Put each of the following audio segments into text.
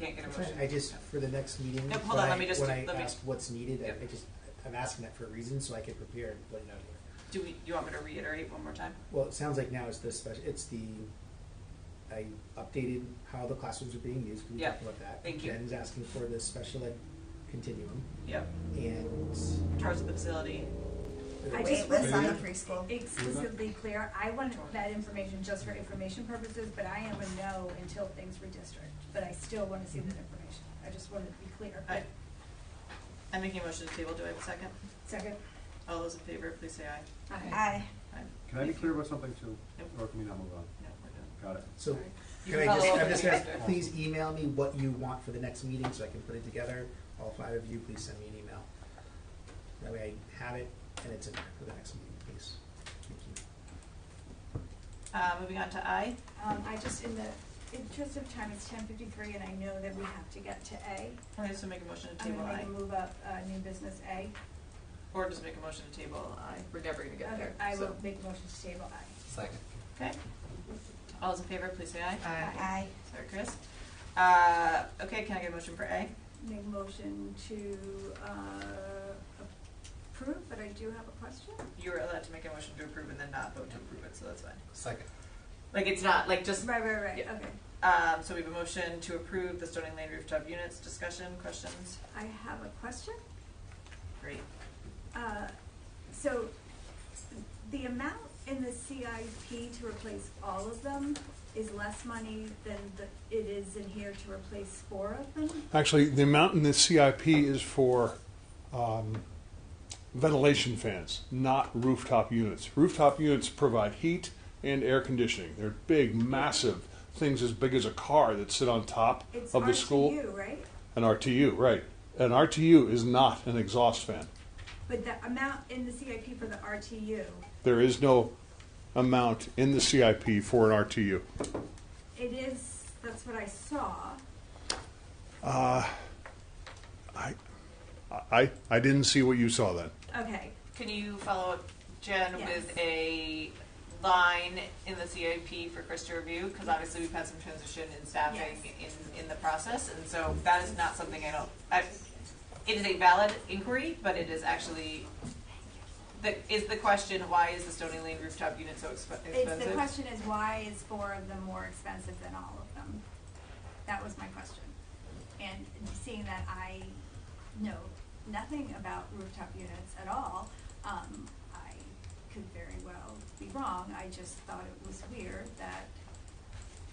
can't get a That's right. motion. I just, for the next meeting, Nope, hold when on, I, let me just when do- I let me- asked what's needed, Yep. I, I just, I'm asking that for a reason, so I can prepare and put it out here. Do we, do you want me to reiterate one more time? Well, it sounds like now it's this special, it's the, I updated how the classrooms are being used, we Yeah. talked about that. Thank you. Jen's asking for the special ed continuum, Yep, and. charge of the facility. I Wait, just what's want on the to preschool? be explicitly clear, I wanted that information just for information purposes, but I am a no until things redistrict. But I still want to see that information. I just wanted to be clear. I, I'm making a motion to table, do I have a second? Second? All those in favor, please say aye. Aye. Aye. Can I be clear about something too? Yep. Or can we not move on? No, we're done. Got it. So, You can I can just, follow up I'm just with me gonna, after. please email me what you want for the next meeting, so I can put it together, all five of you, please send me an email. That way I have it, and it's in there for the next meeting, please, thank you. Uh, moving on to I, Um, I just, in the interest of time, it's ten fifty-three, and I know that we have to get to A. I just make a motion to I'm table gonna I, make a move up, uh, new business A. or just make a motion to table I, we're never gonna get Okay, there, I so. will make a motion to table I. Second. Okay. All those in favor, please say aye. Aye. Sorry, Chris. Uh, okay, can I get a motion for A? Make a motion to, uh, approve, but I do have a question. You were allowed to make a motion to approve and then not vote to approve it, so that's fine. Second. Like, it's not, like, just, Right, right, right, Yeah. okay. um, so we have a motion to approve the Stony Lane rooftop units, discussion, questions? I have a question. Great. Uh, So the amount in the CIP to replace all of them is less money than the- it is in here to replace four of them? Actually, the amount in the CIP is for um, ventilation fans, not rooftop units. Rooftop units provide heat and air conditioning. They're big, massive things as big as a car that sit on top It's of the school. RTU, right? An RTU, right. An RTU is not an exhaust fan. But the amount in the CIP for the RTU, There is no amount in the CIP for an RTU. it is, that's what I saw. Uh, I, I, I didn't see what you saw then. Okay, Can you follow up, Jen, Yes. with a line in the CIP for Chris to review? Because obviously we've had some transition in staffing in, in the process, and so that is not something I don't, I, it is a valid inquiry, but it is actually, the, is the question, why is the Stony Lane rooftop unit so expe- it's, the expensive? question is why is four of them more expensive than all of them? That was my question. And seeing that I know nothing about rooftop units at all, um, I could very well be wrong. I just thought it was weird that,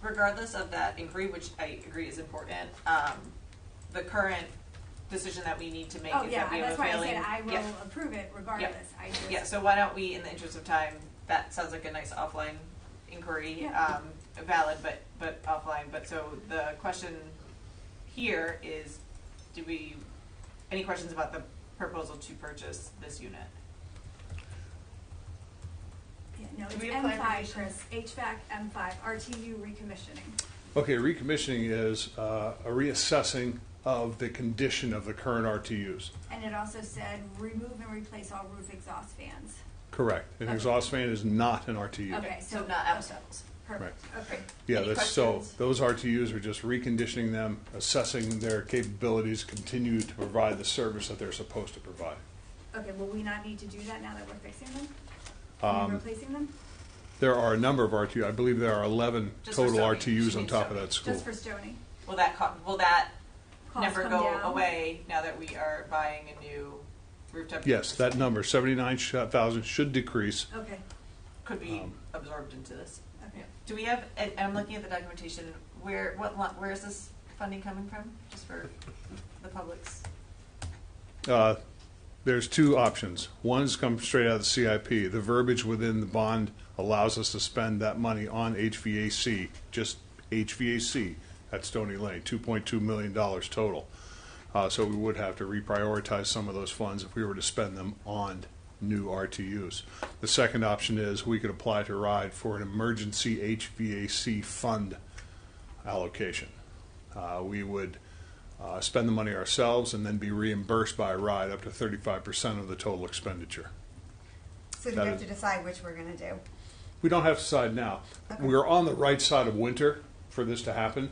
Regardless of that inquiry, which I agree is important, um, the current decision that we need to make oh, is yeah, that we have a that's why I failing. said I Yeah. will approve it regardless. I just. Yeah, so why don't we, in the interest of time, that sounds like a nice offline inquiry, Yeah. um, valid, but, but offline, but so the question here is, do we, any questions about the proposal to purchase this unit? Yeah, No, Do it's we apply M for five, these? Chris, HVAC M five, RTU recommissioning. Okay, recommissioning is uh, a reassessing of the condition of the current RTUs. And it also said remove and replace all roof exhaust fans. Correct. An Okay. exhaust fan is not an RTU. Okay, So so- not apples to apples. Perfect, okay. Yeah, Any that's so. questions? Those RTUs are just reconditioning them, assessing their capabilities, continue to provide the service that they're supposed to provide. Okay, will we not need to do that now that we're fixing them? I mean, Um, replacing them? there are a number of RTU. I believe there are 11 Just for total Stony. RTUs She on means top Stony. of that school. Just for Stony? Will that co- will that Costs never come go down? away now that we are buying a new rooftop? yes, that number 79,000 should decrease. Okay, Could be Um, absorbed into this. okay. Do we have, and I'm looking at the documentation, where, what, lo- where is this funding coming from, just for the public's? Uh, there's two options. One's come straight out of the CIP. The verbiage within the bond allows us to spend that money on HVAC, just HVAC at Stony Lane, $2.2 million total. Uh, so we would have to reprioritize some of those funds if we were to spend them on new RTUs. The second option is we could apply to RIDE for an emergency HVAC fund allocation. Uh, we would uh, spend the money ourselves and then be reimbursed by RIDE up to 35% of the total expenditure. So do That we have is- to decide which we're gonna do? We don't have to decide now. Okay. We're on the right side of winter for this to happen.